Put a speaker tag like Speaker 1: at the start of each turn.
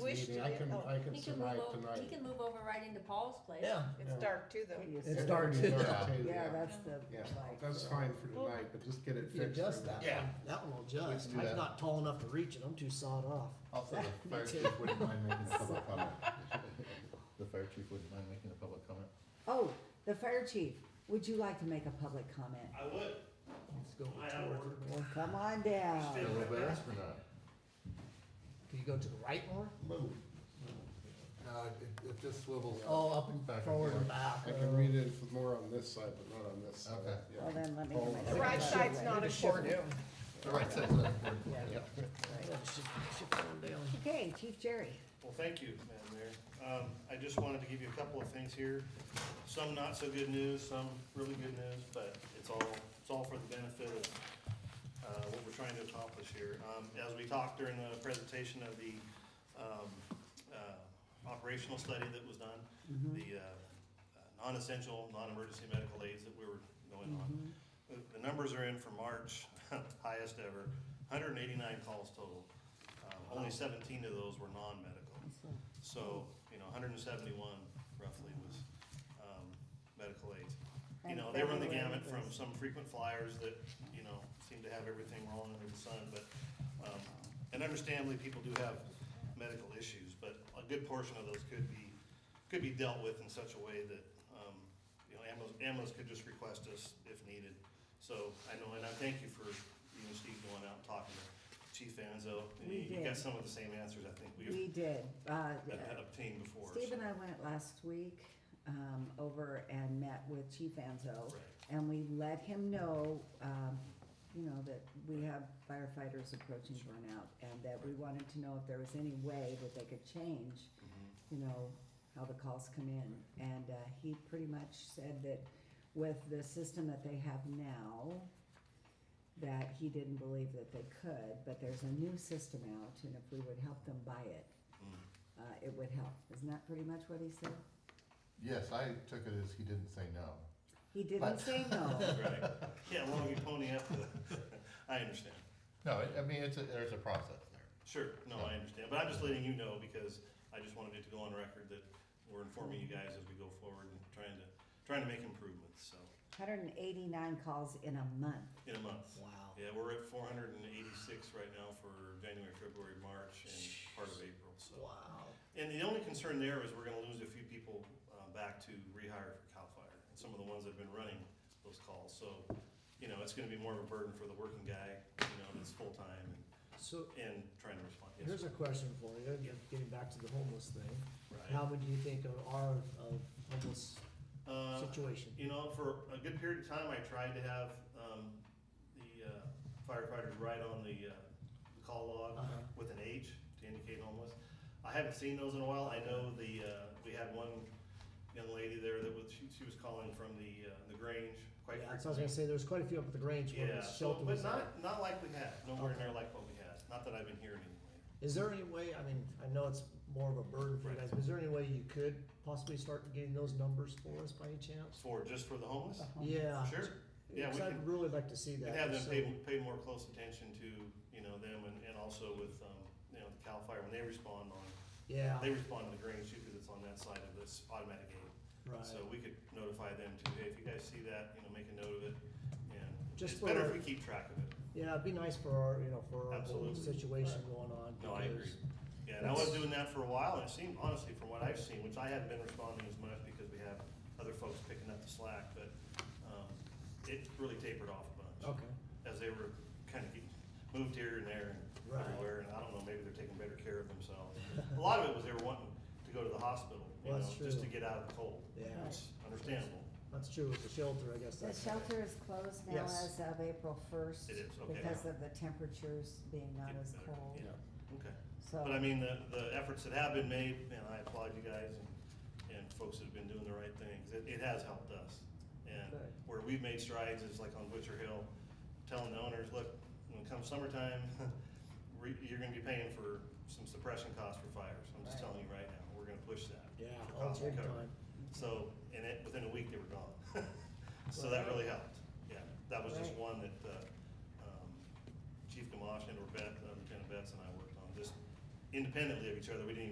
Speaker 1: wish to
Speaker 2: meeting, I
Speaker 1: do-
Speaker 2: can,
Speaker 3: oh,
Speaker 2: I can
Speaker 1: He can move
Speaker 2: survive
Speaker 1: over, he
Speaker 2: tonight.
Speaker 1: can move over right into Paul's place.
Speaker 4: Yeah.
Speaker 2: Yeah.
Speaker 3: It's dark too, though.
Speaker 2: It's
Speaker 4: It's
Speaker 2: dark
Speaker 4: dark
Speaker 2: too,
Speaker 4: too.
Speaker 2: yeah.
Speaker 5: Yeah, that's the.
Speaker 2: Yeah,
Speaker 5: like,
Speaker 2: that's
Speaker 5: uh,
Speaker 2: fine for tonight, but just get it
Speaker 4: If you
Speaker 2: fixed.
Speaker 4: adjust
Speaker 2: for
Speaker 4: that
Speaker 6: Yeah.
Speaker 4: one, that one will adjust.
Speaker 6: do
Speaker 4: Mine's
Speaker 6: that.
Speaker 4: not tall enough to reach it, I'm too sawed off.
Speaker 6: Also, the fire chief wouldn't mind making a public comment. The fire chief wouldn't mind making a public comment.
Speaker 5: Oh, the fire chief, would you like to make a public comment?
Speaker 7: I would.
Speaker 4: Let's go
Speaker 7: I
Speaker 4: toward
Speaker 7: ordered-
Speaker 4: the
Speaker 5: Well,
Speaker 4: north.
Speaker 5: come on
Speaker 6: A
Speaker 5: down.
Speaker 7: Still-
Speaker 6: little bit astronaut.
Speaker 4: Do you go to the right more?
Speaker 2: Move.
Speaker 6: No, it, it just swivels.
Speaker 4: Oh, up
Speaker 6: Back
Speaker 4: and
Speaker 6: and
Speaker 4: forward and
Speaker 6: forth.
Speaker 4: back.
Speaker 2: I can read it for more on this side, but not on this side.
Speaker 6: Okay.
Speaker 2: Yeah.
Speaker 5: Well, then let me.
Speaker 2: Oh,
Speaker 5: make
Speaker 2: The
Speaker 3: The
Speaker 5: a
Speaker 3: right
Speaker 5: public
Speaker 3: side's not
Speaker 5: comment.
Speaker 3: important.
Speaker 6: The right side's not important.
Speaker 4: Yeah.
Speaker 6: Yeah.
Speaker 4: Yeah, shift- shift forward down.
Speaker 5: Okay, Chief Jerry.
Speaker 7: Well, thank you, Madam Mayor. Um, I just wanted to give you a couple of things here. Some not so good news, some really good news, but it's all, it's all for the benefit of, uh, what we're trying to accomplish here. Um, as we talked during the presentation of the, um, uh, operational study that was done, the, uh, uh, non-essential, non-emergency medical aids that we were going on. The- The numbers are in for March, highest ever, hundred and eighty-nine calls total. Um, only seventeen of those were non-medical. So, you know, hundred and seventy-one roughly was, um, medical aids. You know, they run the gamut from some frequent flyers that, you know, seem to have everything wrong under the sun, but, um, and understandably, people do have medical issues, but a good portion of those could be, could be dealt with in such a way that, um, you know, ambulance, ambulance could just request us if needed. So I know, and I thank you for, you and Steve going out and talking to Chief Anzo. and
Speaker 5: We
Speaker 7: You you got
Speaker 5: did.
Speaker 7: some of the same answers I think we've
Speaker 5: We did. Uh,
Speaker 7: had had obtained before. so-
Speaker 5: Steve and I went last week um, over and met with Chief Anzo.
Speaker 7: Right.
Speaker 5: And we let him know, um, you know, that we have firefighters approaching burnout and that we wanted to know if there was any way that they could change, you know, how the calls come in. And uh, he pretty much said that with the system that they have now, that he didn't believe that they could, but there's a new system out and if we would help them buy it, uh, it would help. Isn't that pretty much what he said?
Speaker 6: Yes, I took it as he didn't say no.
Speaker 5: He
Speaker 6: But-
Speaker 5: didn't say no.
Speaker 7: Right, yeah, long you pony up, the- I understand.
Speaker 6: No, I- I mean, it's a, there's a process there.
Speaker 7: Sure, no, I understand, but I'm just letting you know because I just wanted it to go on record that we're informing you guys as we go forward and trying to, trying to make improvements, so,
Speaker 5: Hundred and eighty-nine calls in a month.
Speaker 7: in a month.
Speaker 4: Wow.
Speaker 7: Yeah, we're at four hundred and eighty-six right now for January, February, March, and part of April, so.
Speaker 4: Wow.
Speaker 7: And the only concern there is we're gonna lose a few people, uh, back to rehire for CAL FIRE, and some of the ones that have been running those calls, so, you know, it's gonna be more of a burden for the working guy, you know, that's full-time and,
Speaker 4: So
Speaker 7: and trying to respond, yes,
Speaker 4: here's a question for you, get- getting back to the homeless thing. How
Speaker 7: right?
Speaker 4: many do you think of are of homeless
Speaker 7: Uh,
Speaker 4: situation?
Speaker 7: You know, for a good period of time, I tried to have, um, the uh, firefighters write on the, uh, the call log
Speaker 4: Uh-huh.
Speaker 7: with an H to indicate homeless. I haven't seen those in a while. I know the, uh, we had one young lady there that was, she, she was calling from the, uh, the Grange quite
Speaker 4: Yeah, so I was
Speaker 7: frequently.
Speaker 4: gonna say, there's quite a few up at the Grange where
Speaker 7: Yeah,
Speaker 4: the
Speaker 7: so,
Speaker 4: shelter
Speaker 7: but
Speaker 4: was at.
Speaker 7: not, not like we had, nowhere near like what we had. Not that I've been hearing anyway.
Speaker 4: Is there any way, I mean, I know it's more of a burden for you
Speaker 7: Right.
Speaker 4: guys, but is there any way you could possibly start getting those numbers for us by any chance?
Speaker 7: For, just for the homeless?
Speaker 5: Um,
Speaker 4: Yeah.
Speaker 7: Sure, yeah, we
Speaker 4: Cause
Speaker 7: can-
Speaker 4: I'd really like to see
Speaker 7: And
Speaker 4: that.
Speaker 7: have them
Speaker 4: so-
Speaker 7: pay, pay more close attention to, you know, them and, and also with, um, you know, the CAL FIRE, when they respond on,
Speaker 4: Yeah,
Speaker 7: they respond to the Grange too, cause it's on that side of this automatic aid.
Speaker 4: right.
Speaker 7: So we could notify them too, hey, if you guys see that, you know, make a note of it, and
Speaker 4: Just
Speaker 7: it's better if
Speaker 4: for-
Speaker 7: we keep track of it.
Speaker 4: Yeah, it'd be nice for our, you know, for our whole
Speaker 7: Absolutely.
Speaker 4: situation going on.
Speaker 7: No, I agree.
Speaker 4: because-
Speaker 7: Yeah, and I was doing that for a while, and it seemed, honestly, from what I've seen, which I haven't been responding as much because we have other folks picking up the slack, but, um, it really tapered off a bunch.
Speaker 4: Okay,
Speaker 7: as they were kind of getting moved here and there and
Speaker 4: Right.
Speaker 7: everywhere, and I don't know, maybe they're taking better care of themselves. A lot of it was they were wanting to go to the hospital, you
Speaker 4: Well,
Speaker 7: know,
Speaker 4: that's
Speaker 7: just to
Speaker 4: true.
Speaker 7: get out of the cold.
Speaker 4: yeah,
Speaker 7: It's understandable.
Speaker 4: that's true with the shelter, I guess
Speaker 5: The
Speaker 4: that's.
Speaker 5: shelter is closed now
Speaker 4: Yes.
Speaker 5: as of April first.
Speaker 7: It is, okay.
Speaker 5: Because of the temperatures being not
Speaker 7: Getting
Speaker 5: as
Speaker 7: better,
Speaker 5: cold.
Speaker 7: yeah. Okay.
Speaker 5: So,
Speaker 7: But I mean, the, the efforts that have been made, and I applaud you guys and, and folks that have been doing the right things. It, it has helped us. And
Speaker 4: Good.
Speaker 7: where we've made strides is like on Witcher Hill, telling the owners, look, when it comes summertime, we- you're gonna be paying for some suppression costs for fires. I'm just
Speaker 5: Right.
Speaker 7: telling you right now, we're gonna push that.
Speaker 4: Yeah,
Speaker 7: for
Speaker 4: all
Speaker 7: cost
Speaker 4: big
Speaker 7: recovery.
Speaker 4: time.
Speaker 7: So, and it, within a week, they were gone. So that really helped, yeah. That was just
Speaker 5: Right.
Speaker 7: one that, uh, um, Chief Gamache and or Beth, uh, Lieutenant Betts and I worked on, just independently of each other. We didn't even